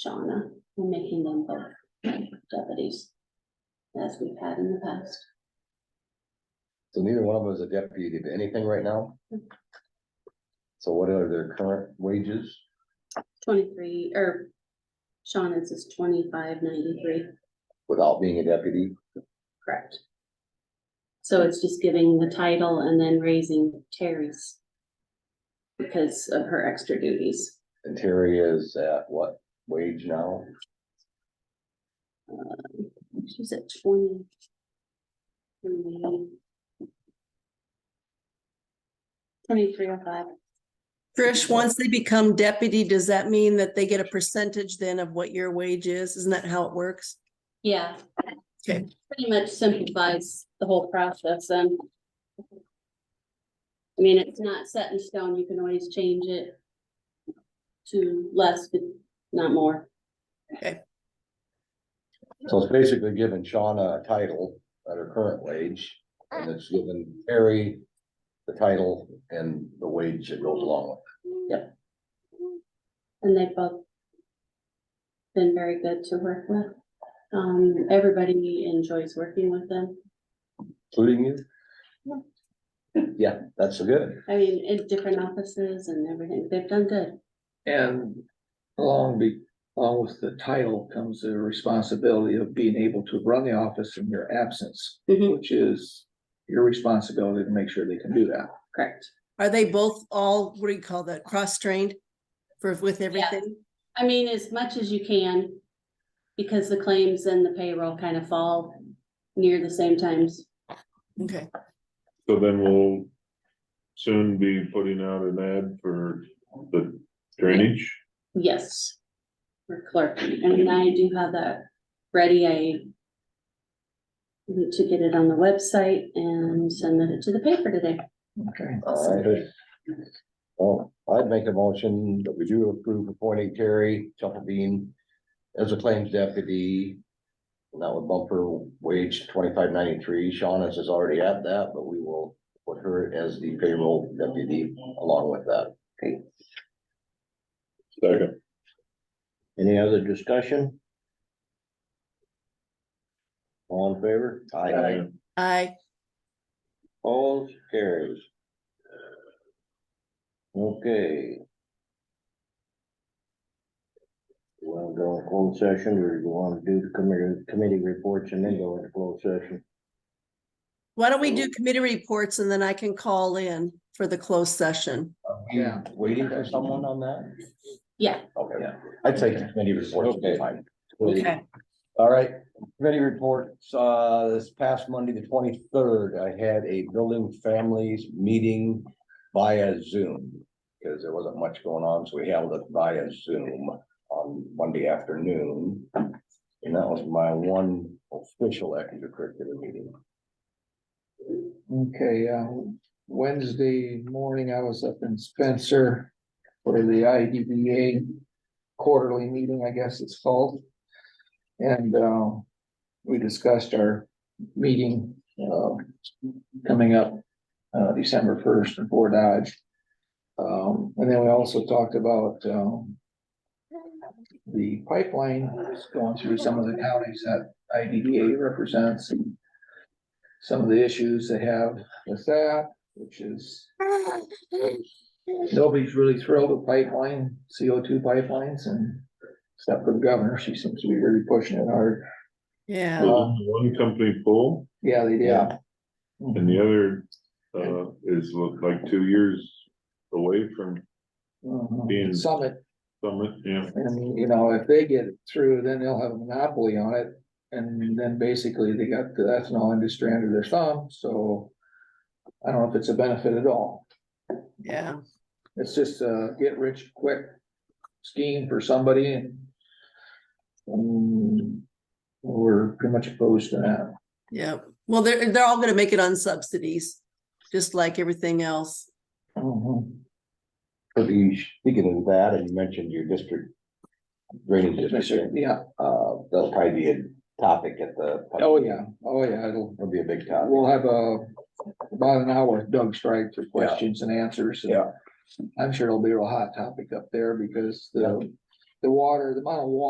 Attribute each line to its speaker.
Speaker 1: Shauna, and making them both deputies. As we've had in the past.
Speaker 2: So neither one of them is a deputy to anything right now? So what are their current wages?
Speaker 1: Twenty-three, or Shauna's is twenty-five ninety-three,
Speaker 2: without being a deputy.
Speaker 1: correct? So it's just giving the title and then raising Terry's. Because of her extra duties.
Speaker 2: And Terry is at what wage now?
Speaker 1: She's at twenty. Twenty-three oh five.
Speaker 3: Trish, once they become deputy, does that mean that they get a percentage then of what your wage is? Isn't that how it works?
Speaker 1: Yeah.
Speaker 3: Okay.
Speaker 1: Pretty much simplifies the whole process and. I mean, it's not set in stone, you can always change it. To less, but not more,
Speaker 2: So it's basically giving Shauna a title at her current wage, and it's giving Terry the title and the wage that goes along with
Speaker 1: and they've both. Been very good to work with, um, everybody enjoys working with them,
Speaker 2: it, including you. Yeah, that's so good.
Speaker 1: I mean, in different offices and everything, they've done good.
Speaker 4: And along be, along with the title comes the responsibility of being able to run the office in your absence,
Speaker 1: Mhm,
Speaker 4: which is your responsibility to make sure they can do that.
Speaker 1: Correct,
Speaker 3: Are they both all, what do you call that, cross-trained for, with everything?
Speaker 1: I mean, as much as you can. Because the claims and the payroll kind of fall near the same times.
Speaker 3: Okay,
Speaker 5: So then we'll soon be putting out an ad for the drainage.
Speaker 1: Yes. For clerk, and I do have that ready, I. Need to get it on the website and send it to the paper today.
Speaker 4: Okay.
Speaker 2: All right. Well, I'd make a motion that we do approve appointing Terry Bean as a claims deputy. And that would bump her wage twenty-five ninety-three. Shauna's is already at that, but we will put her as the payroll deputy along with that.
Speaker 5: Second.
Speaker 6: Any other discussion? All in favor?
Speaker 2: Aye.
Speaker 3: I,
Speaker 6: All carries. Okay. You wanna go in closed session, or you wanna do the committee, committee reports and then go into closed session?
Speaker 3: why don't we do committee reports and then I can call in for the closed session?
Speaker 4: Yeah.
Speaker 2: Waiting for someone on that?
Speaker 1: Yeah,
Speaker 2: Okay, I'd take the committee reports.
Speaker 6: Okay.
Speaker 2: Fine.
Speaker 3: Okay,
Speaker 2: All right, committee reports, uh, this past Monday, the twenty-third, I had a building families meeting via Zoom. Because there wasn't much going on, so we held it via Zoom on Monday afternoon. And that was my one official extracurricular meeting.
Speaker 4: Okay, uh, Wednesday morning, I was up in Spencer for the IDBA quarterly meeting, I guess it's called. And, uh, we discussed our meeting, uh, coming up, uh, December first in Fort Dodge. Um, and then we also talked about, um, the pipeline that's going through some of the counties that IDBA represents and some of the issues they have with that, which is nobody's really thrilled with pipeline, CO two pipelines and except for the governor, she seems to be really pushing it hard.
Speaker 3: yeah,
Speaker 5: Well, One company pull
Speaker 4: Yeah, they Mm-hmm.
Speaker 2: Yeah.
Speaker 4: did.
Speaker 5: and the other uh is look like two years away from Being-
Speaker 4: Mhm. Summit,
Speaker 5: summit, yeah.
Speaker 4: and you know, if they get it through, then they'll have a monopoly on it. And then basically they got the ethanol industry under their thumb, so I don't know if it's a benefit at all.
Speaker 3: yeah.
Speaker 4: It's just a get rich quick scheme for somebody and. um, we're pretty much opposed to that.
Speaker 3: Yeah, well, they're, they're all gonna make it on subsidies, just like everything else.
Speaker 2: But you, speaking of that, and you mentioned your district. Drainage district,
Speaker 4: Yeah,
Speaker 2: uh, that'll probably be a topic at the.
Speaker 4: oh, yeah, oh, yeah, it'll,
Speaker 2: It'll be a big topic.
Speaker 4: we'll have a, about an hour of Doug Strike for questions and answers. and
Speaker 2: Yeah.
Speaker 4: I'm sure it'll be a real hot topic up there because the, the water, the amount of water